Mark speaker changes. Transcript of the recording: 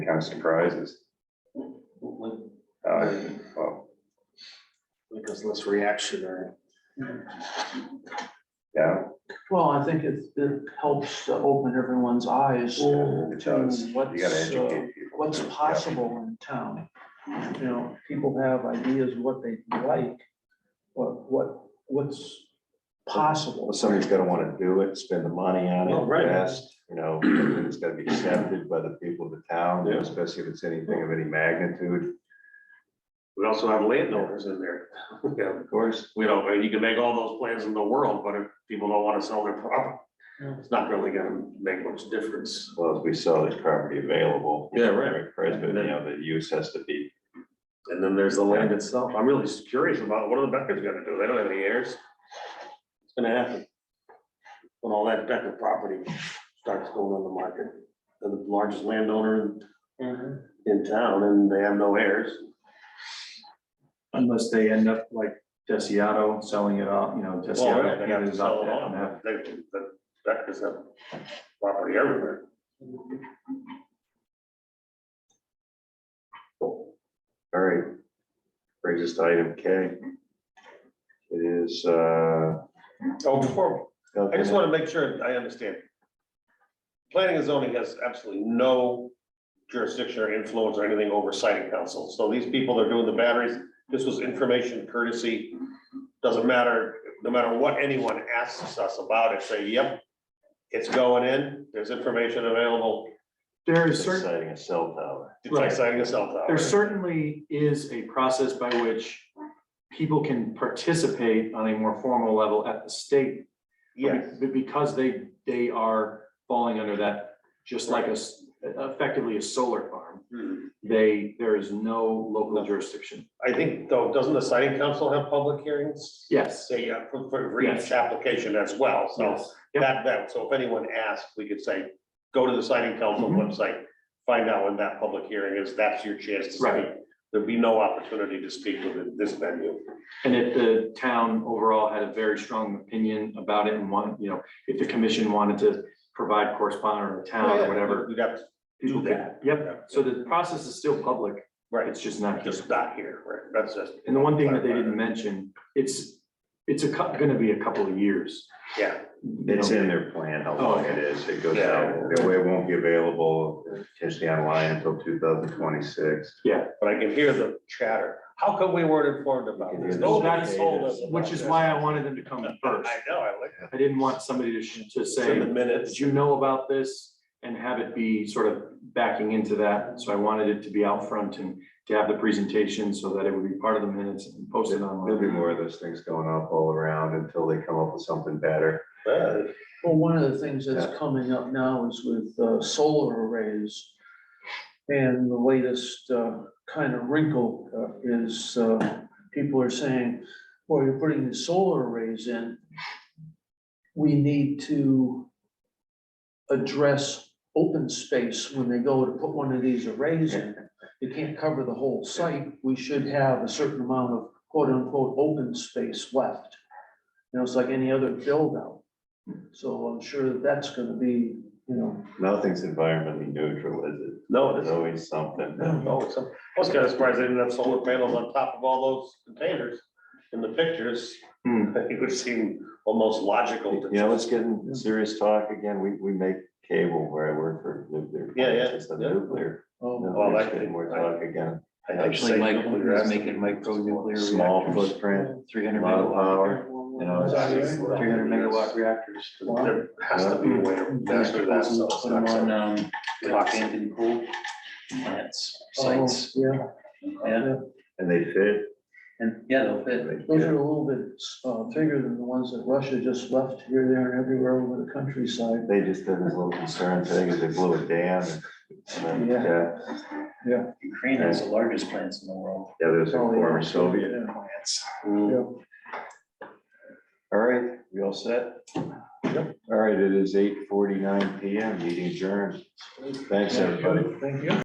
Speaker 1: kind of surprises.
Speaker 2: Like
Speaker 1: Uh, well,
Speaker 2: a less reaction or.
Speaker 1: yeah,
Speaker 3: Well, I think it, it helps to open everyone's eyes.
Speaker 4: Mm.
Speaker 1: it does. You gotta
Speaker 2: uh,
Speaker 1: educate people.
Speaker 3: What's
Speaker 1: Yeah.
Speaker 3: possible in town? You know, people have ideas what they like, what, what, what's
Speaker 4: Well,
Speaker 3: possible.
Speaker 4: somebody's gonna wanna do it, spend the money on it,
Speaker 2: Oh, right.
Speaker 4: invest, you know, it's gotta be accepted by the people of the town,
Speaker 2: Yeah.
Speaker 4: especially if it's anything of any magnitude,
Speaker 2: We also have landowners in there.
Speaker 1: Yeah.
Speaker 4: of course.
Speaker 2: We don't, you can make all those plans in the world, but if people don't wanna sell their property, it's not really gonna make much difference.
Speaker 4: Well, if we saw this property available.
Speaker 2: Yeah, right.
Speaker 4: Right, but you know, the use has to be,
Speaker 2: And then there's the land itself. I'm really curious about what are the Beckers gonna do? They don't have any heirs. It's gonna happen. When all that Becker property starts going on the market, they're the largest landowner in- in town and they have no heirs.
Speaker 5: Unless they end up like Desiato selling it off, you know,
Speaker 2: Well, yeah,
Speaker 5: Desiato
Speaker 2: they have
Speaker 5: gathers
Speaker 2: to sell
Speaker 5: up
Speaker 2: it
Speaker 5: that
Speaker 2: on,
Speaker 5: map.
Speaker 2: but they, that, that is a property everywhere.
Speaker 4: all right. Brings us to item K. It is, uh.
Speaker 2: Oh, before, I just
Speaker 4: okay.
Speaker 2: want to make sure I understand. Planning and zoning has absolutely no jurisdiction or influence or anything over siting council. So these people that are doing the batteries, this was information courtesy. Doesn't matter, no matter what anyone asks us about it, say, yep, it's going in, there's information available.
Speaker 5: There is
Speaker 4: It's
Speaker 5: certain,
Speaker 4: Deciding a cell tower.
Speaker 2: It's like
Speaker 5: Right.
Speaker 2: siting a cell tower.
Speaker 5: there certainly is a process by which people can participate on a more formal level at the state.
Speaker 2: Yes.
Speaker 5: But because they, they are falling under that, just like us, effectively a solar farm,
Speaker 2: Hmm.
Speaker 5: they, there is no local jurisdiction.
Speaker 2: I think though, doesn't the siting council have public hearings?
Speaker 5: Yes.
Speaker 2: Say, yeah, for, for for each
Speaker 5: Yes.
Speaker 2: application as well, so
Speaker 5: Yes. Yep.
Speaker 2: that, that, so if anyone asks, we could say, go to the siting council
Speaker 5: Mhm.
Speaker 2: website. Find out when that public hearing is, that's your chance to speak,
Speaker 5: Right.
Speaker 2: there'd be no opportunity to speak within this venue.
Speaker 5: And if the town overall had a very strong opinion about it and wanted, you know, if the commission wanted to provide correspondent or town or Uh, whatever.
Speaker 2: We'd have to
Speaker 5: people
Speaker 2: Oh, do
Speaker 5: could-
Speaker 2: that.
Speaker 5: Yep, so the process is still public,
Speaker 2: Right,
Speaker 5: it's just not here.
Speaker 2: just not here, right, that's just,
Speaker 5: And the one thing that they didn't mention, it's, it's a, cou- gonna be a couple of years.
Speaker 2: yeah,
Speaker 5: you
Speaker 4: It's
Speaker 5: know.
Speaker 4: in their plan,
Speaker 2: Oh,
Speaker 4: how long it is, it goes out, the way it won't be available, potentially online until two thousand twenty-six.
Speaker 2: but I can hear the chatter, how come we weren't informed about this? Nobody told us. about
Speaker 5: Which is
Speaker 2: this.
Speaker 5: why I wanted them to come first.
Speaker 2: I know, I like,
Speaker 5: I didn't want somebody to, sh- to
Speaker 2: it's in the
Speaker 5: say,
Speaker 2: minutes.
Speaker 5: did you know about this? And have it be sort of backing into that. So I wanted it to be out front and to have the presentation so that it would be part of the minutes and posted
Speaker 4: There'll be
Speaker 5: online.
Speaker 4: more of those things going up all around until they come up with something better.
Speaker 2: Yeah.
Speaker 3: Well, one of the things that's coming up now is with uh, solar arrays. And the latest uh, kind of wrinkle uh, is uh, people are saying, well, you're putting the solar arrays in. We need to address open space when they go to put one of these arrays in. You can't cover the whole site. We should have a certain amount of quote unquote open space left. You know, it's like any other build out. So I'm sure that that's gonna be, you know,
Speaker 4: Nothing's environmentally neutral, is it?
Speaker 2: No, it
Speaker 4: There's
Speaker 2: isn't.
Speaker 4: always something.
Speaker 2: No, it's, I was kind of surprised they didn't have solar panels on top of all those containers in the pictures.
Speaker 5: Hmm.
Speaker 2: It would seem almost logical. to-
Speaker 4: You know, let's get in serious talk again. We, we make cable where I work for nuclear.
Speaker 2: Yeah, yeah,
Speaker 4: plants instead of
Speaker 2: yeah.
Speaker 4: Nuclear.
Speaker 3: oh,
Speaker 2: Well,
Speaker 4: Nuclear's
Speaker 2: that-
Speaker 4: getting more talk again.
Speaker 2: I think
Speaker 6: Actually,
Speaker 2: safe
Speaker 6: Mike
Speaker 2: nuclear
Speaker 6: is
Speaker 2: acid
Speaker 6: making micro nuclear
Speaker 4: Small
Speaker 6: reactors.
Speaker 4: footprint,
Speaker 6: Three hundred
Speaker 4: a lot of
Speaker 6: megawatt,
Speaker 4: power, you know,
Speaker 2: Is that
Speaker 4: it's,
Speaker 2: right?
Speaker 6: three hundred megawatt reactors.
Speaker 2: There has to be a way to master that, so it's
Speaker 6: Put them
Speaker 2: not
Speaker 6: on,
Speaker 2: so-
Speaker 6: um, Rockhampton Pool plants, sites,
Speaker 3: Uh, yeah,
Speaker 6: yeah,
Speaker 4: and they fit.
Speaker 5: Oh.
Speaker 6: and, yeah, they'll fit.
Speaker 4: they
Speaker 3: those
Speaker 4: fit.
Speaker 3: are a little bit, uh, bigger than the ones that Russia just left here, there, and everywhere over the countryside.
Speaker 4: They just did this little concern thing is they blew a dam and- and then,
Speaker 3: Yeah.
Speaker 4: yeah,
Speaker 6: Ukraine has the largest plants in the world.
Speaker 4: yeah, there's a former Soviet.
Speaker 3: Yeah,
Speaker 6: Plants.
Speaker 2: Mm.
Speaker 3: yeah.
Speaker 4: All right, we all set? Yep. All right, it is eight forty-nine PM, meeting adjourned. Thanks, everybody.
Speaker 3: Thank you.